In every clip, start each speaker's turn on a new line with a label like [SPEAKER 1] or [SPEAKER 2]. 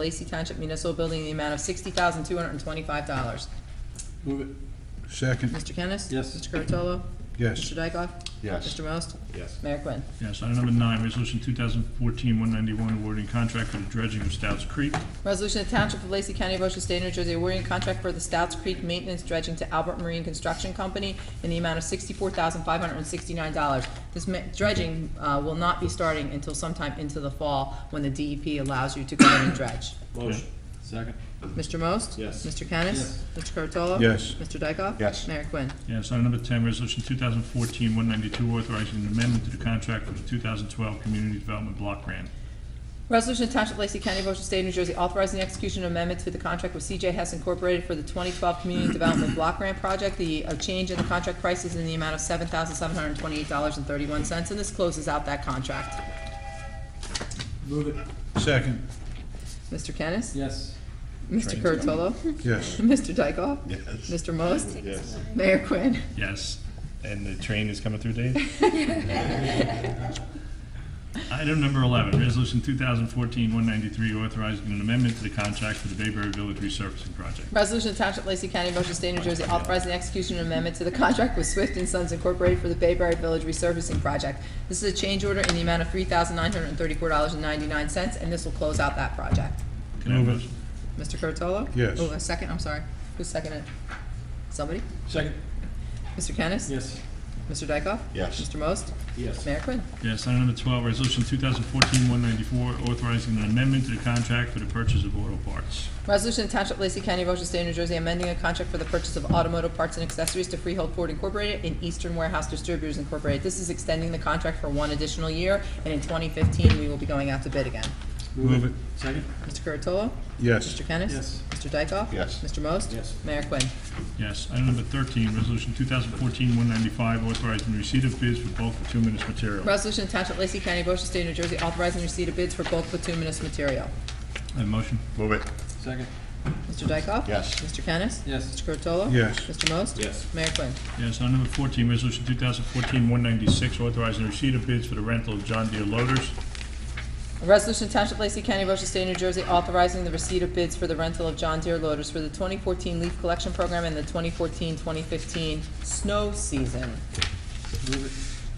[SPEAKER 1] Lacey Township Municipal Building in the amount of sixty thousand, two hundred and twenty-five dollars.
[SPEAKER 2] Move it.
[SPEAKER 3] Second,
[SPEAKER 1] Mr. Kennis?
[SPEAKER 2] Yes.
[SPEAKER 1] Mr. Curatolo?
[SPEAKER 3] yes.
[SPEAKER 1] Mr. Dykoff?
[SPEAKER 3] Yes.
[SPEAKER 1] Mr. Most?
[SPEAKER 2] Yes.
[SPEAKER 1] Mayor Quinn.
[SPEAKER 4] Yes, item number nine, resolution 2014-191, awarding contract for the dredging of Stouts Creek.
[SPEAKER 1] Resolution of Township of Lacey County, Ocean State, New Jersey, awarding contract for the Stouts Creek Maintenance Dredging to Albert Marine Construction Company in the amount of sixty-four thousand, five hundred and sixty-nine dollars. This ma- dredging, uh, will not be starting until sometime into the fall, when the DEP allows you to go in and dredge.
[SPEAKER 2] Motion. Second.
[SPEAKER 1] Mr. Most?
[SPEAKER 2] Yes.
[SPEAKER 1] Mr. Kennis?
[SPEAKER 2] Yes.
[SPEAKER 1] Mr. Curatolo?
[SPEAKER 3] Yes.
[SPEAKER 1] Mr. Dykoff?
[SPEAKER 3] Yes.
[SPEAKER 1] Mayor Quinn.
[SPEAKER 4] Yes, item number 10, resolution 2014-192, authorizing an amendment to the contract for the 2012 Community Development Block Grant.
[SPEAKER 1] Resolution of Township of Lacey County, Ocean State, New Jersey, authorizing the execution of amendment to the contract with CJ Hess Incorporated for the 2012 Community Development Block Grant Project. The uh, change in the contract price is in the amount of $7,728.31, and this closes out that contract.
[SPEAKER 2] Move it.
[SPEAKER 3] Second,
[SPEAKER 1] Mr. Kennis?
[SPEAKER 2] Yes.
[SPEAKER 1] Mr. Curatolo?
[SPEAKER 3] yes.
[SPEAKER 1] Mr. Dykoff?
[SPEAKER 3] Yes.
[SPEAKER 1] Mr. Most?
[SPEAKER 3] Yes.
[SPEAKER 1] Mayor Quinn?
[SPEAKER 4] Yes. And the train is coming through, Dave? Item number 11, resolution 2014-193, authorizing an amendment to the contract for the Bayberry Village Resurfacing Project.
[SPEAKER 1] Resolution of Township of Lacey County, Ocean State, New Jersey, authorizing the execution of amendment to the contract with Swift and Sons Incorporated for the Bayberry Village Resurfacing Project. This is a change order in the amount of $3,934.99, and this will close out that project.
[SPEAKER 4] Can I have a motion?
[SPEAKER 1] Mr. Curatolo?
[SPEAKER 3] Yes.
[SPEAKER 1] Oh, a second, I'm sorry. Who seconded? Somebody?
[SPEAKER 2] Second.
[SPEAKER 1] Mr. Kennis?
[SPEAKER 2] Yes.
[SPEAKER 1] Mr. Dykoff?
[SPEAKER 3] Yes.
[SPEAKER 1] Mr. Most?
[SPEAKER 2] Yes.
[SPEAKER 1] Mayor Quinn.
[SPEAKER 4] Yes, item number 12, resolution 2014-194, authorizing an amendment to the contract for the purchase of auto parts.
[SPEAKER 1] Resolution to Township of Lacey County, Ocean State, New Jersey, amending a contract for the purchase of automotive parts and accessories to Freehold Ford Incorporated and Eastern Warehouse Distributors Incorporated. This is extending the contract for one additional year, and in 2015, we will be going out to bid again.
[SPEAKER 3] Move it,
[SPEAKER 2] Second.
[SPEAKER 1] Mr. Curatolo?
[SPEAKER 3] yes.
[SPEAKER 1] Mr. Kennis?
[SPEAKER 2] Yes.
[SPEAKER 1] Mr. Dykoff?
[SPEAKER 3] Yes.
[SPEAKER 1] Mr. Most?
[SPEAKER 2] Yes.
[SPEAKER 1] Mayor Quinn.
[SPEAKER 4] Yes, item number 13, resolution 2014-195, authorizing receipt of bids for bulk bituminous material. I
[SPEAKER 1] Resolution to Township of Lacey County, Ocean State, New Jersey, authorizing receipt of bids for bulk bituminous material.
[SPEAKER 4] Have a motion?
[SPEAKER 3] Move it,
[SPEAKER 2] Second.
[SPEAKER 1] Mr. Dykoff?
[SPEAKER 3] Yes.
[SPEAKER 1] Mr. Kennis?
[SPEAKER 2] Yes.
[SPEAKER 1] Mr. Curatolo?
[SPEAKER 3] Yes.
[SPEAKER 1] Mr. Most?
[SPEAKER 2] Yes.
[SPEAKER 1] Mayor Quinn.
[SPEAKER 4] Yes, item number 14, resolution 2014-196, authorizing receipt of bids for the rental of John Deere loaders.
[SPEAKER 1] A resolution of Township of Lacey County, Ocean State, New Jersey, authorizing the receipt of bids for the rental of John Deere loaders for the 2014 leaf collection program and the 2014-2015 snow season.
[SPEAKER 2] Move it.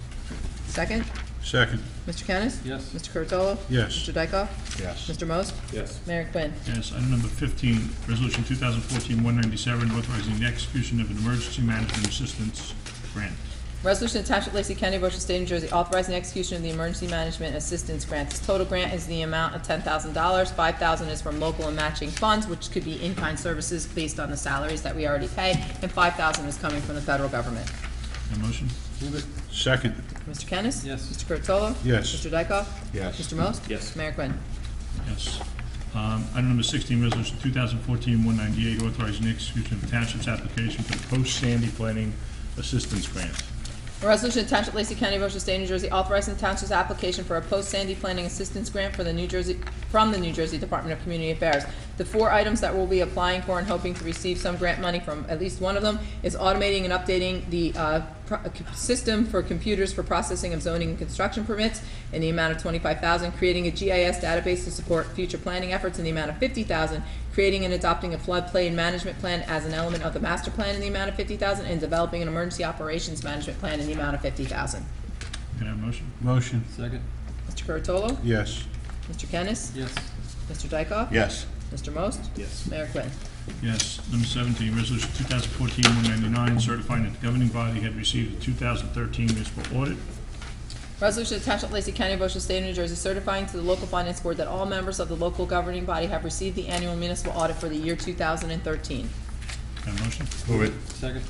[SPEAKER 1] Second,
[SPEAKER 3] second,
[SPEAKER 1] Mr. Kennis?
[SPEAKER 2] Yes.
[SPEAKER 1] Mr. Curatolo?
[SPEAKER 3] Yes.
[SPEAKER 1] Mr. Dykoff?
[SPEAKER 3] yes.
[SPEAKER 1] Mr. Most?
[SPEAKER 2] Yes.
[SPEAKER 1] Mayor Quinn.
[SPEAKER 4] Yes, item number 15, resolution 2014-197, authorizing the execution of an emergency management assistance grant.
[SPEAKER 1] Resolution of Township of Lacey County, Ocean State, New Jersey, authorizing the execution of the Emergency Management Assistance Grant. This total grant is the amount of ten thousand dollars. Five thousand dollars is from local and matching funds, which could be in-kind services based on the salaries that we already pay, and five thousand dollars is coming from the federal government.
[SPEAKER 4] Have a motion?
[SPEAKER 2] Move it.
[SPEAKER 3] Second,
[SPEAKER 1] Mr. Kennis?
[SPEAKER 2] Yes.
[SPEAKER 1] Mr. Curatolo?
[SPEAKER 3] Yes.
[SPEAKER 1] Mr. Dykoff?
[SPEAKER 3] Yes.
[SPEAKER 1] Mr. Most?
[SPEAKER 2] Yes.
[SPEAKER 1] Mayor Quinn.
[SPEAKER 4] Yes. Um, Item number 16, resolution 2014-198, authorizing the execution of township's application for the post-Sandy planning assistance grant.
[SPEAKER 1] A resolution of Township of Lacey County, Ocean State, New Jersey, authorizing the township's application for a post-Sandy planning assistance grant for the New Jersey, from the New Jersey Department of Community Affairs. The four items that we'll be applying for and hoping to receive some grant money from at least one of them is automating and updating the uh, pro- uh, c- system for computers for processing of zoning and construction permits in the amount of twenty-five thousand, creating a GIS database to support future planning efforts in the amount of fifty thousand, creating and adopting a floodplain management plan as an element of the master plan in the amount of fifty thousand, and developing an emergency operations management plan in the amount of fifty thousand.
[SPEAKER 4] Can I have a motion?
[SPEAKER 3] motion,
[SPEAKER 2] Second.
[SPEAKER 1] Mr. Curatolo?
[SPEAKER 3] yes.
[SPEAKER 1] Mr. Kennis?
[SPEAKER 2] Yes.
[SPEAKER 1] Mr. Dykoff?
[SPEAKER 3] Yes.
[SPEAKER 1] Mr. Most?
[SPEAKER 2] Yes.
[SPEAKER 1] Mayor Quinn.
[SPEAKER 4] Yes. Number 17, Resolution 2014-199, certifying that the governing body had received the 2013 municipal audit.
[SPEAKER 1] Resolution to Township of Lacey County, Ocean State of New Jersey, certifying to the local finance board that all members of the local governing body have received the annual municipal audit for the year two thousand and thirteen.
[SPEAKER 4] Can I have a motion?
[SPEAKER 3] Move it,
[SPEAKER 2] Second.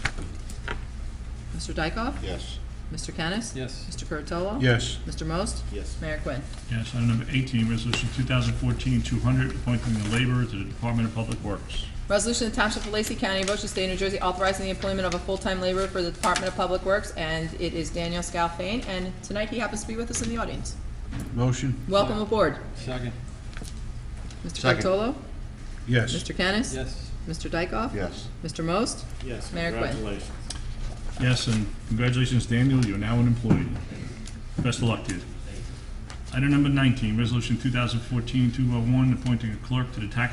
[SPEAKER 1] Mr. Dykoff?
[SPEAKER 3] yes.
[SPEAKER 1] Mr. Kennis?
[SPEAKER 2] Yes.
[SPEAKER 1] Mr. Curatolo?
[SPEAKER 3] Yes,
[SPEAKER 1] Mr. Most?
[SPEAKER 2] Yes.
[SPEAKER 1] Mayor Quinn.
[SPEAKER 4] Yes. Item number 18, Resolution 2014-200, appointing the laborer to the Department of Public Works.
[SPEAKER 1] Resolution of Township of Lacey County, Ocean State, New Jersey, authorizing the employment of a full-time laborer for the Department of Public Works, and it is Daniel Scalfane, and tonight he happens to be with us in the audience.
[SPEAKER 3] motion,
[SPEAKER 1] Welcome aboard.
[SPEAKER 2] Second.
[SPEAKER 1] Mr.
[SPEAKER 3] Second.
[SPEAKER 1] Curatolo?
[SPEAKER 3] yes.
[SPEAKER 1] Mr. Kennis?
[SPEAKER 2] Yes.
[SPEAKER 1] Mr. Dykoff?
[SPEAKER 3] Yes.
[SPEAKER 1] Mr. Most?
[SPEAKER 2] Yes.
[SPEAKER 1] Mayor Quinn.
[SPEAKER 4] Yes, and congratulations, Daniel, you're now an employee. Best of luck to you. Item number 19, Resolution 2014-201, appointing a clerk to the Tax